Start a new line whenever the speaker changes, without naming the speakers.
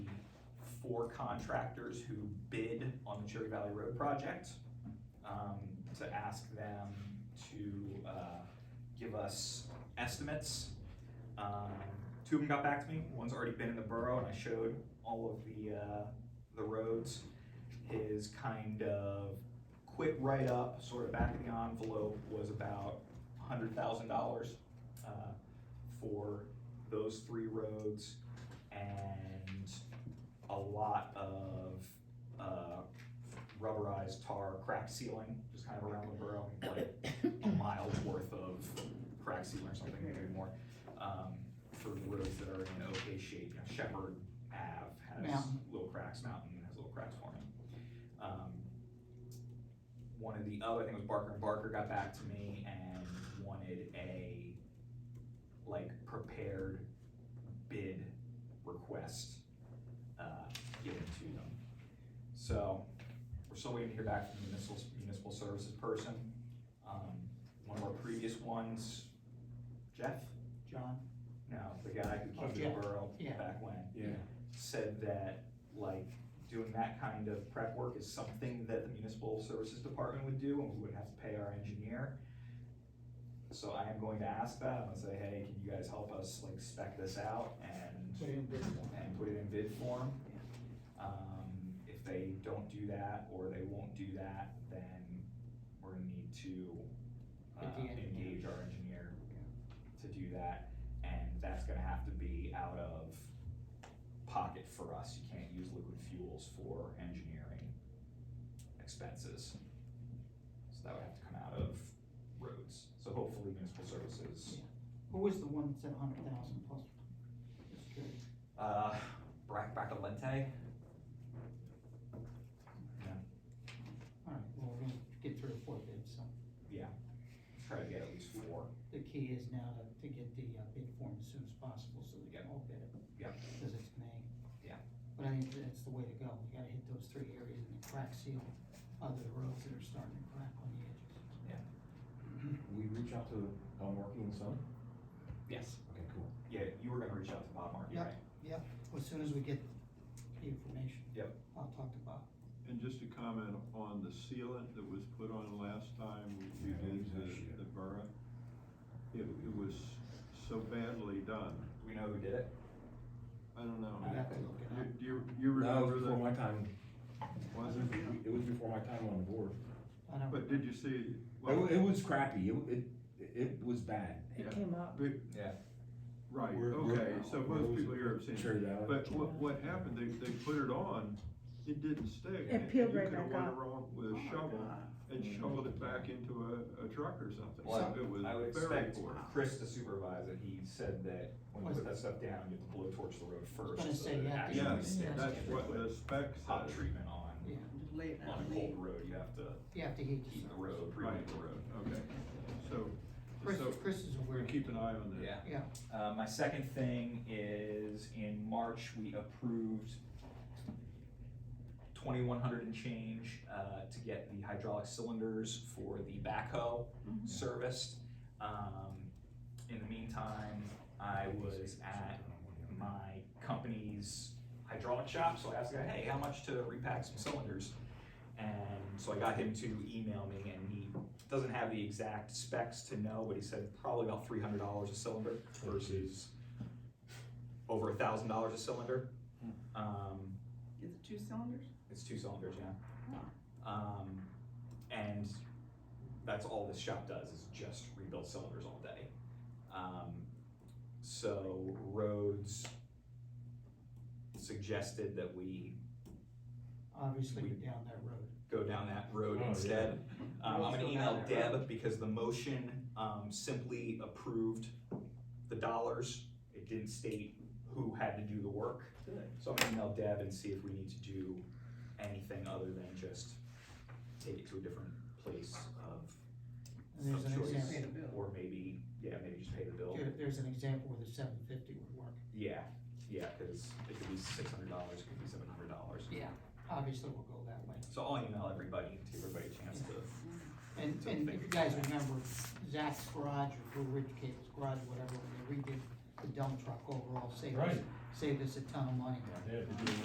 four contractors who bid on the Cherry Valley Road project, um, to ask them to, uh, give us estimates. Um, two of them got back to me, one's already been in the borough, and I showed all of the, uh, the roads. His kind of quick write-up, sort of back of the envelope, was about hundred thousand dollars, uh, for those three roads and a lot of, uh, rubberized tar crack sealing, just kind of around the borough, like a mile's worth of crack sealing or something, maybe more, um, for the roads that are in okay shape. Shepherd Ave has
Mountain.
little cracks, Mountain has little cracks forming. Um, one of the other, I think it was Barker and Barker got back to me and wanted a, like, prepared bid request, uh, given to them. So, we're still waiting to hear back from the municipal, municipal services person. Um, one of our previous ones, Jeff,
John?
no, the guy who
Oh,
came to the
Jeff,
borough
yeah.
back when
Yeah,
said that, like, doing that kind of prep work is something that the municipal services department would do, and we wouldn't have to pay our engineer. So I am going to ask that, and say, hey, can you guys help us, like, spec this out and, and put it in bid form? Um, if they don't do that, or they won't do that, then we're gonna need to, uh,
Get the engineer.
engage our engineer to do that, and that's gonna have to be out of pocket for us, you can't use liquid fuels for engineering expenses. So that would have to come out of roads, so hopefully municipal services,
Who was the one that said hundred thousand plus? Just curious.
uh, Brack Bacalente,
All right, well, we're gonna get three or four bids, so
try to get at least four.
the key is now to, to get the uh, bid form as soon as possible, so we can all bid it.
Yeah.
Cause it's May.
Yeah.
But I think that's the way to go, you gotta hit those three areas and the crack seal, other roads that are starting to crack on the edges.
we reach out to Elmworthy and Son?
Yes.
Okay, cool.
Yeah, you were gonna reach out to Bob Markey,
Yeah.
right?
As soon as we get the information.
Yep.
I'll talk to Bob.
And just to comment on the sealant that was put on last time we did the, the borough, it, it was so badly done,
Do we know who did it?
I don't know.
I have to look it up.
Do you, you
No, it
remember
was before
that?
my time,
Was
it
it?
was before my time on the board.
I don't,
But did you see,
It, wa-
well,
it was crappy, it, it, it was bad.
Yeah.
It came up.
but,
Yeah.
right,
We're- we're-
okay, so most people here have seen it.
Cherry Valley.
But what, what happened, they, they put it on, it didn't stick.
It peeled right
You could've went
back up. Oh
around with a shovel and shoveled it back into a, a truck or something.
Well,
It was
I would
very
expect
poor.
Chris to supervise it, he said that when you
Was-
put that stuff down, you have to blowtorch the road
was
first.
gonna
so that
say,
it
yeah,
actually
Yeah,
Yes,
sticks.
that's
If you
what
put
the spec
Hot
says.
treatment on,
yeah,
on a cold road, you have to
you have to heat the
heat the
surface.
road, preheat
Right.
the road.
Okay, so,
Chris,
so
Chris is aware.
we
of it.
keep an eye on that.
Yeah.
Yeah.
Uh, my second thing is in March, we approved twenty-one hundred and change, uh, to get the hydraulic cylinders for the backhoe
Mhm.
serviced. Um, in the meantime, I was at my company's hydraulic shop, so I asked the guy, hey, how much to repack some cylinders? And so I got him to email me, and he doesn't have the exact specs to know, but he said probably about three hundred dollars a cylinder versus over a thousand dollars a cylinder. Um,
Is it two cylinders?
it's two cylinders, yeah. Um, and that's all this shop does is just rebuild cylinders all day. Um, so Rhodes suggested that we
Obviously,
We-
you're down that road.
go down that road
Oh, yeah.
instead. Um, I'm
Roads
gonna
go down
email
that road.
Deb because the motion, um, simply approved the dollars. It didn't state who had to do the work.
Good.
So I'm gonna email Deb and see if we need to do anything other than just take it to a different place of,
And there's
of
an
choice.
example,
Or maybe, yeah, maybe just pay the bill.
there- there's an example where the seven fifty would work.
Yeah, yeah, cause it could be six hundred dollars, it could be seven hundred dollars.
Yeah. Obviously, we'll go that way.
So I'll email everybody, to give everybody a chance to,
And,
So
and
think
if you guys
about
remember Zach's garage or Blue Ridge Cable's garage, whatever, when they redid the dump truck overall, saved us, saved us a ton of money.
Yeah.